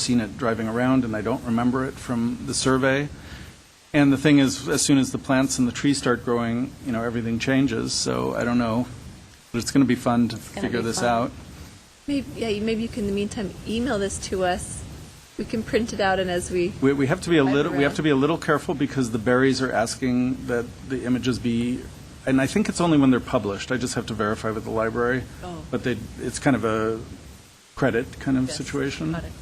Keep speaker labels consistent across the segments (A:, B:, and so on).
A: seen it driving around, and I don't remember it from the survey. And the thing is, as soon as the plants and the trees start growing, you know, everything changes, so I don't know. But it's going to be fun to
B: gonna
A: figure
B: be
A: this
B: fun.
A: out.
C: Maybe, yeah, you- maybe you can, in the meantime, email this to us. We can print it out and as we,
A: We, we have to be a
C: I've
A: little, we have
C: read.
A: to be a little careful because the berries are asking that the images be, and I think it's only when they're published, I just have to verify with the library.
C: Oh.
A: But they, it's kind of a credit kind of
C: Yes,
A: situation.
C: got it.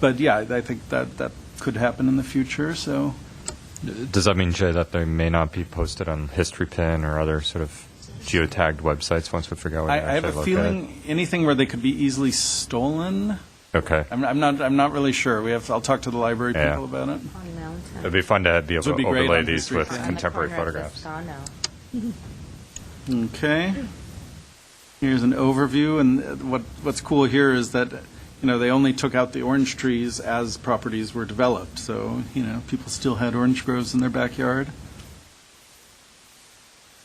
A: But yeah, I think that, that could happen in the future, so.
D: Does that mean, Jay, that they may not be posted on History Pin or other sort of geotagged websites once we figure out where
A: I,
D: to
A: I have
D: actually
A: a
D: look
A: feeling anything where they could be easily stolen.
D: at? Okay.
A: I'm, I'm not. I'm not really sure. We have. I'll talk to the library
D: Yeah.
A: people about it.
B: On Mountain.
D: It'd be fun to be able
A: Would be
D: to
A: great
D: overlay
A: on
D: these
A: History
D: with
A: Pin.
B: On the
D: contemporary
B: corner of
D: photographs.
B: Fasano.
A: Okay. Here's an overview, and uh, what what's cool here is that you know they only took out the orange trees as properties were developed. So you know people still had orange groves in their backyard.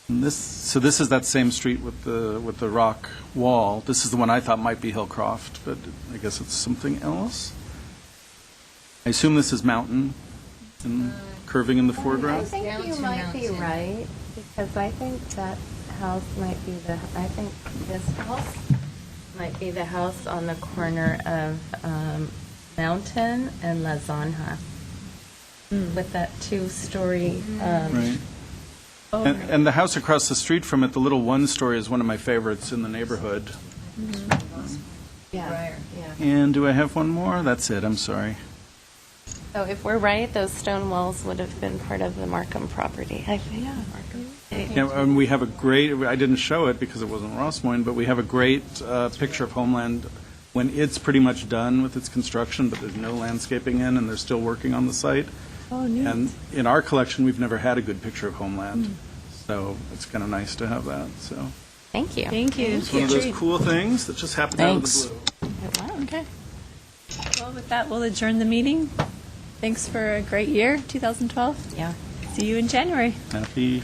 A: And this. So this is that same street with the with the rock wall. This is the one I thought might be Hillcroft, but I guess it's something else. I assume this is mountain and curving in the
B: I
A: foreground.
B: think you might be right, because I think that house might be the, I think this house might be the house on the corner of um, Mountain and La Zanja, with that two-story. um,
A: Right. And, and the house across the street from it, the little one-story, is one of my favorites in the neighborhood.
B: Yeah. yeah.
A: And do I have one more? That's it, I'm sorry.
E: So if we're right, those stone walls would have been part of the Markham property, I think.
A: Yeah, And we have a great, I didn't show it because it wasn't Ross Moyne, but we have a great uh, picture of Homeland when it's pretty much done with its construction, but there's no landscaping in, and they're still working on the site.
C: Oh,
A: And
C: neat.
A: in our collection, we've never had a good picture of Homeland, so it's kind of nice to have that, so.
E: Thank you.
C: Thank you.
A: It's one of those cool things that just happened out of the
E: Thanks.
A: blue.
C: Okay. Well, with that, we'll adjourn the meeting. Thanks for a great year, 2012.
E: Yeah.
C: See you in January.
A: Happy